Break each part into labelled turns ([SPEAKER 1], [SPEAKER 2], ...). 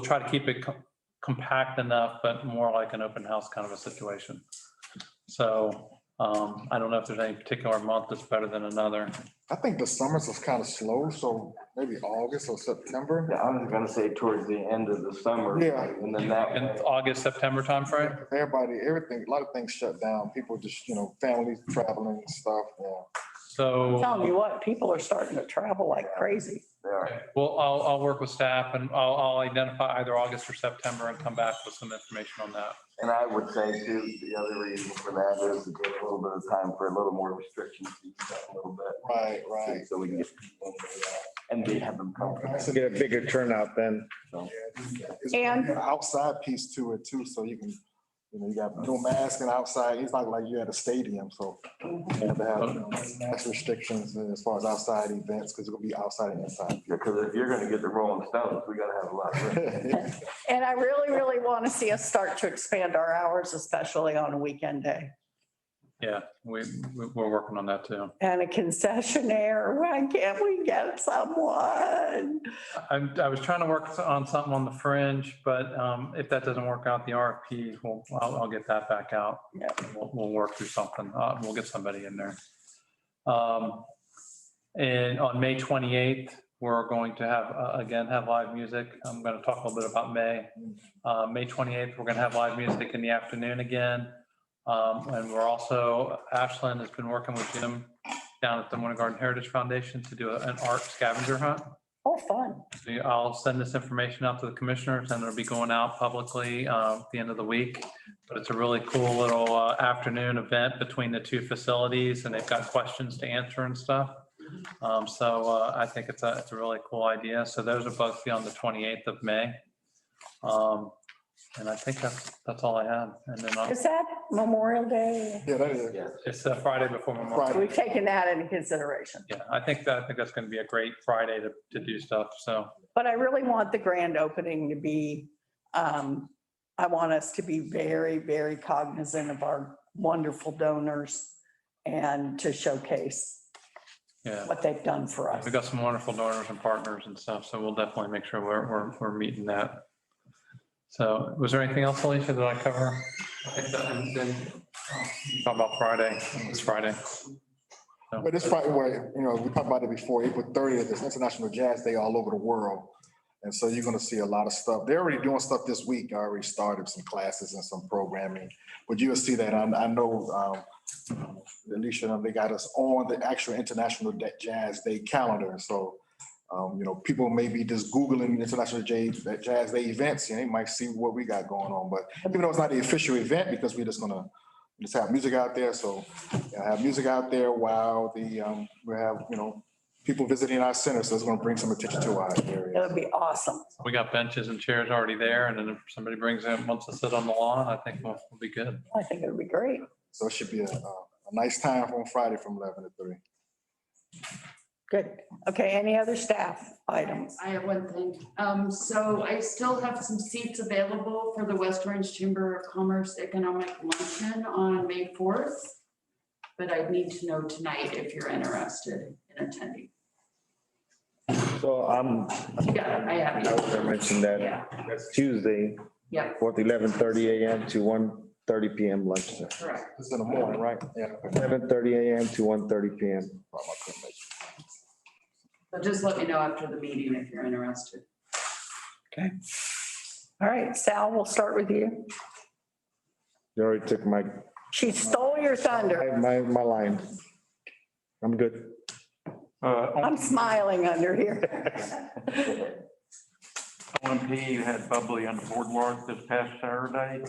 [SPEAKER 1] try to keep it co- compact enough, but more like an open house kind of a situation. So um, I don't know if there's any particular month that's better than another.
[SPEAKER 2] I think the summers is kind of slow, so maybe August or September.
[SPEAKER 3] Yeah, I was gonna say towards the end of the summer.
[SPEAKER 2] Yeah.
[SPEAKER 3] And then that,
[SPEAKER 1] In
[SPEAKER 3] way-
[SPEAKER 1] August, September timeframe?
[SPEAKER 2] Everybody, everything, a lot of things shut down. People just, you know, families traveling and stuff, yeah.
[SPEAKER 1] So.
[SPEAKER 4] Tell me what, people are starting to travel like crazy.
[SPEAKER 3] yeah,
[SPEAKER 1] Well, I'll, I'll work with staff and I'll, I'll identify either August or September and come back with some information on that.
[SPEAKER 3] and I would say too, the other reason for that is to give a little bit of time for a little more restrictions to ease up a little bit.
[SPEAKER 2] Right, right.
[SPEAKER 3] So we can get people in there, uh, and they have them come.
[SPEAKER 5] So get a bigger turnout then.
[SPEAKER 2] It's
[SPEAKER 4] And-
[SPEAKER 2] an Outside piece to it too, so you can, you know, you got no mask and outside, it's not like you're at a stadium, so. You have to have you know, mask restrictions and as far as outside events, because it'll be outside and inside.
[SPEAKER 3] Because if you're gonna get the Rolling Stones, we gotta have a lot. of room.
[SPEAKER 4] And I really, really want to see us start to expand our hours, especially on a weekend day.
[SPEAKER 1] Yeah, we, we- we're working on that too.
[SPEAKER 4] And a concessionaire, why can't we get someone?
[SPEAKER 1] I, I was trying to work on something on the fringe, but um, if that doesn't work out, the RFP, will I'll, I'll get that back out.
[SPEAKER 4] Yeah.
[SPEAKER 1] We'll, we'll work through something. Uh, we'll get somebody in there. Um, And on May 28th, we're going to have, uh, again, have live music. I'm going to talk a little bit about May. Uh, May 28th, we're going to have live music in the afternoon again. Um, And we're also, Ashland has been working with Jim down at the Winter Garden Heritage Foundation to do a- an art scavenger hunt.
[SPEAKER 4] Oh, fun.
[SPEAKER 1] So I'll send this information out to the commissioners and it'll be going out publicly uh, at the end of the week. But it's a really cool little uh, afternoon event between the two facilities and they've got questions to answer and stuff. Um, So uh, I think it's a, it's a really cool idea. So those are both be on the 28th of May. Um, And I think that's, that's all I have. And then I'll-
[SPEAKER 4] Is that Memorial Day?
[SPEAKER 2] Yeah, that is.
[SPEAKER 3] Yeah.
[SPEAKER 1] it's uh, Friday before Memorial.
[SPEAKER 2] Friday.
[SPEAKER 4] We've taken that into consideration.
[SPEAKER 1] Yeah, I think that, I think that's going to be a great Friday to, to do stuff. So
[SPEAKER 4] But I really want the grand opening to be, um, I want us to be very, very cognizant of our wonderful donors and to showcase
[SPEAKER 1] yeah.
[SPEAKER 4] what they've done for us.
[SPEAKER 1] We've got some wonderful donors and partners and stuff, so we'll definitely make sure we're, we're, we're meeting that. So was there anything else, Alicia, that I cover? And then, Talk about Friday, it's Friday. So-
[SPEAKER 2] But it's probably where, you know, we talked about it before, April thirtieth is International Jazz Day all over the world. And so you're gonna see a lot of stuff. They're already doing stuff this week. I already started some classes and some programming. But you'll see that. I, I know, um, Alicia, they got us on the actual International Da- Jazz Day calendar. So, um, you know, people may be just Googling International Jazz, Jazz Day events, and they might see what we got going on. But even though it's not the official event, because we're just gonna just have music out there. So I have music out there while the, um, we have, you know, people visiting our center, so it's gonna bring some attention to our
[SPEAKER 4] It
[SPEAKER 2] area.
[SPEAKER 4] would be awesome.
[SPEAKER 1] We got benches and chairs already there, and then if somebody brings in, wants to sit on the lawn, I think we'll, we'll be good.
[SPEAKER 4] I think it would be great.
[SPEAKER 2] So it should be a, a a nice time on Friday from eleven to three.
[SPEAKER 4] Good. Okay, any other staff items?
[SPEAKER 6] I have one thing. Um, so I still have some seats available for the West Orange Chamber of Commerce Economic Luncheon on May fourth. But I need to know tonight if you're interested in attending.
[SPEAKER 5] So I'm,
[SPEAKER 6] Yeah, I have
[SPEAKER 5] I was gonna
[SPEAKER 6] you.
[SPEAKER 5] mention that
[SPEAKER 6] Yeah,
[SPEAKER 5] that's Tuesday,
[SPEAKER 6] yeah,
[SPEAKER 5] fourth, eleven thirty AM to one thirty PM lunch.
[SPEAKER 6] correct.
[SPEAKER 2] It's in the morning, right? Yeah.
[SPEAKER 5] Eleven thirty AM to one thirty PM.
[SPEAKER 2] Probably couldn't make it.
[SPEAKER 6] So just let me know after the meeting if you're interested.
[SPEAKER 4] All right, Sal, we'll start with you.
[SPEAKER 5] You already took my,
[SPEAKER 4] She stole your thunder.
[SPEAKER 5] my, my line. I'm good.
[SPEAKER 4] I'm smiling under here.
[SPEAKER 7] OMP had bubbly on the boardwalk this past Saturday.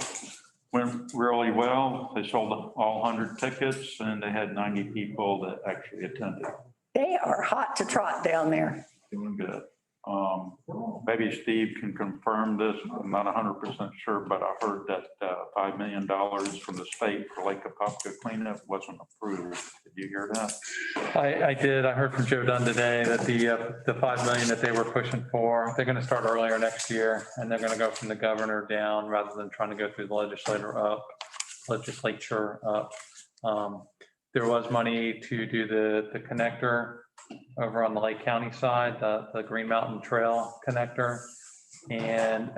[SPEAKER 7] Went really well. They sold all 100 tickets and they had 90 people that actually attended.
[SPEAKER 4] They are hot to trot down there.
[SPEAKER 7] Doing good. Um, Maybe Steve can confirm this. I'm not 100% sure, but I heard that uh, $5 million from the state for Lake Apopka cleanup wasn't approved. Did you hear that?
[SPEAKER 1] I, I did, I heard from Joe Dunn today that the, uh, the 5 million that they were pushing for, they're going to start earlier next year, and they're going to go from the governor down rather than trying to go through the legislator up, legislature up. Um, There was money to do the, the connector over on the Lake County side, the, the Green Mountain Trail connector. And